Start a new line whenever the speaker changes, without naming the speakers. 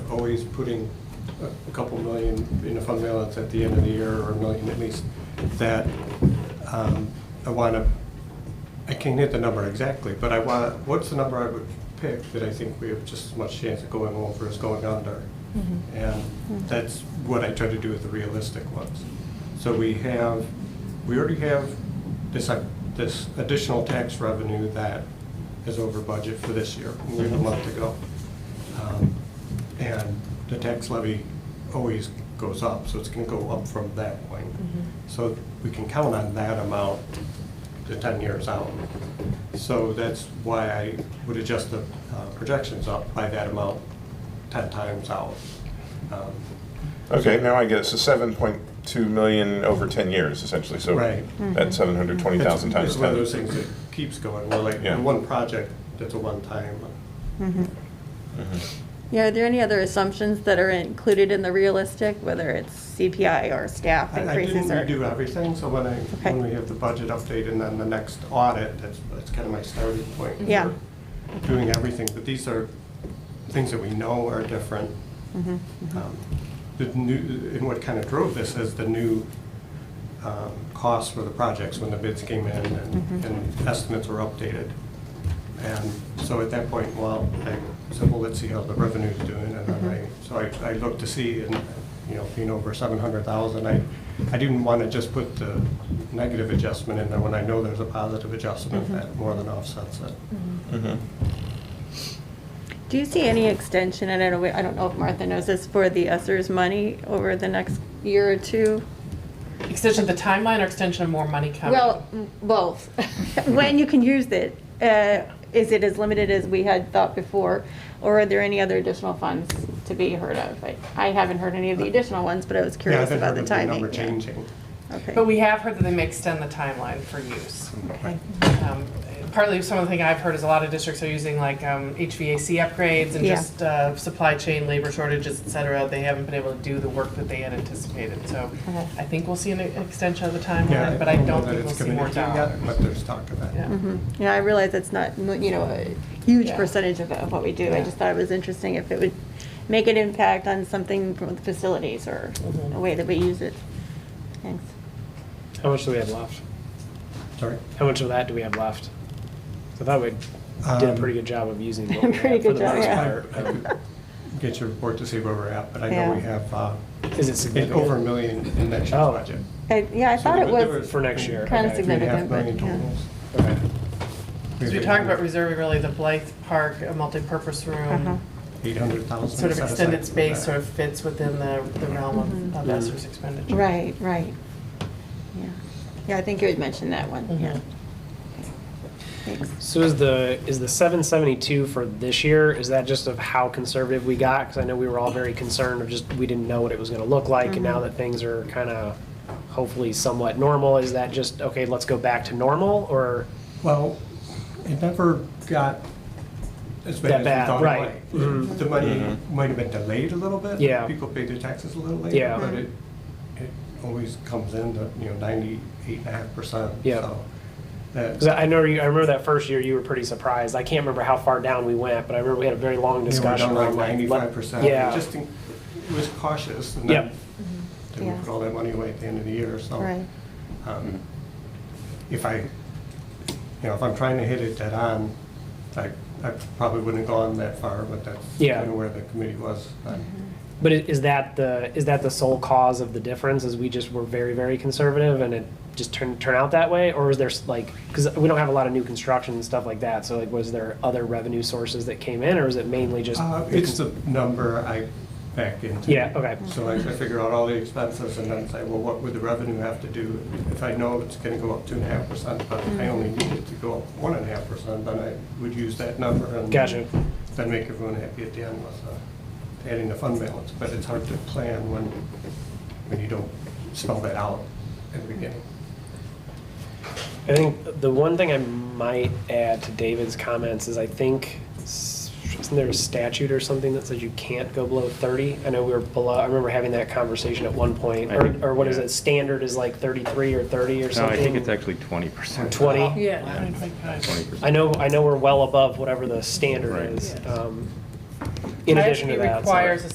always putting a- a couple million in a fund balance at the end of the year, or a million at least, that um, I want to, I can't hit the number exactly, but I want, what's the number I would pick that I think we have just as much chance of going over as going under? And that's what I try to do with the realistic ones. So we have, we already have this, uh, this additional tax revenue that is over budget for this year. We have a month to go. Um, And the tax levy always goes up, so it's gonna go up from that point. So we can count on that amount to ten years out. So that's why I would adjust the uh, projections up by that amount ten times out. Um,
Okay, now I get it. So seven point two million over ten years, essentially. So
Right.
that's seven hundred twenty thousand
it's-
times
It's one of
ten.
those things that keeps going, We're like,
Yeah.
the one project, that's a one-time.
Mm-hmm.
Yeah, are there any other assumptions that are included in the realistic, whether it's CPI or staff
I I didn't
increases or?
redo everything, so when I,
Okay.
when we have the budget update and then the next audit, that's, that's kind of my starting point.
Yeah.
for Doing everything, but these are things that we know are different. Um, The new, and what kind of drove this is the new um, costs for the projects when the bids came in
Mm-hmm.
and and estimates were updated. And so at that point, well, I said, well, let's see how the revenue's doing, and then
Mm-hmm.
I, so I, I looked to see, and, you know, being over seven hundred thousand, I, I didn't wanna just put the negative adjustment in there when I know there's a positive adjustment
Mm-hmm.
that more than offsets it.
Mm-hmm.
Do you see any extension, and I don't, I don't know if Martha knows this, for the Esser's money over the next year or two?
Extension of the timeline or extension of more money coming?
Well, m- both. When you can use it, uh, is it as limited as we had thought before? Or are there any other additional funds to be heard of? I- I haven't heard any of the additional ones, but I was
Uh, Yeah, I
curious
haven't
about
heard
the
of the
timing.
number
yeah.
changing.
Okay.
But we have heard that they may extend the timeline for use.
Okay.
Um, Partly, some of the thing I've heard is a lot of districts are using like um, HVAC upgrades and
Yeah.
just uh, supply chain, labor shortages, et cetera. They haven't been able to do the work that they had anticipated. So
Okay.
I think we'll see an an extension of the
Yeah,
timeline, but I
know
don't
that
think we'll
it's
see more
committed to
dollars.
yet, But there's talk of that.
Yeah.
Yeah, I realize it's not, you know, a huge
Yeah.
percentage of of what we do. I
Yeah.
just thought it was interesting if it would make an impact on something from the facilities or
Mhm.
a way that we use it. Thanks.
How much do we have left?
Sorry?
How much of that do we have left? I thought we did a
Um,
pretty good job of using what we
Pretty
had for
good
the
job,
most
yeah.
part. um,
I could Get your report to see where we're at, but I know
Yeah.
we have, uh,
Is
it's over
it
a
significant?
million in next year's
Oh.
budget.
I- Yeah, I
So
thought
there
it
there
was,
um, For next year.
Kinda
okay.
Three and a half
significant, but,
million
yeah.
totals.
Okay.
So you're talking about reserving really the Blythe Park, a multipurpose
Uh-huh.
room,
Eight hundred thousand.
sort of extended space sort of fits within the the realm of- of
Mhm.
Esser's expenditure.
Mm-hmm. right, right. Yeah, yeah, I think you had mentioned that one, yeah.
Mhm.
Thanks.
So is the, is the seven seventy-two for this year, is that just of how conservative we got? Because I know we were all very concerned of just, we didn't know what it was gonna look like, and now
Mm-hmm.
that things are kind of hopefully somewhat normal, is that just, okay, let's go back to normal, or?
Well, it never got as bad as
That
we
bad,
thought
right. Mm-hmm.
it might. The money might have been delayed a little bit.
Yeah.
People paid their taxes a little later.
Yeah.
But it, it always comes in to, you know, ninety-eight and a half percent.
Yeah.
So that-
Because I know you, I remember that first year you were pretty surprised. I can't remember how far down we went, but I remember we had a very long
You know, we're
discussion.
down like
on, like,
ninety-five percent.
Yeah.
Just, think- it was cautious. and then-
Yep.
Then we
Yeah.
put all that money away at the end of the year, so.
Right.
um, If I, you know, if I'm trying to hit it dead on, I, I probably wouldn't have gone that far, but that's
Yeah.
kind of where the committee was. I-
but i- is that the is that the sole cause of the difference? Is we just were very very conservative and it just turned turn out that way, or was there s- like because we don't have a lot of new construction and stuff like that? So like, was there other revenue sources that came in, or is it mainly just?
Uh, It's the number I back into.
Yeah, okay.
So I I figure out all the expenses and then say, well, what would the revenue have to do? If I know it's gonna go up two and a half percent, but I only need it to go up one and a half percent, then I would use that number and.
Gotcha.
Then make everyone happy at the end with uh, adding the fund balance, but it's hard to plan when, when you don't spell that out at the beginning.
I think the one thing I might add to David's comments is I think s- isn't there a statute or something that says you can't go below 30? I know we were below. I remember having that conversation at one point,
I
or,
think-
or what is
yeah.
it? Standard is like 33 or 30 or
No,
something.
I think it's actually twenty percent.
20.
Yeah. I think that's-
Twenty percent.
I know. I know we're well above whatever the standard
Right.
is.
Yes.
Um, in addition to that, so-
requires a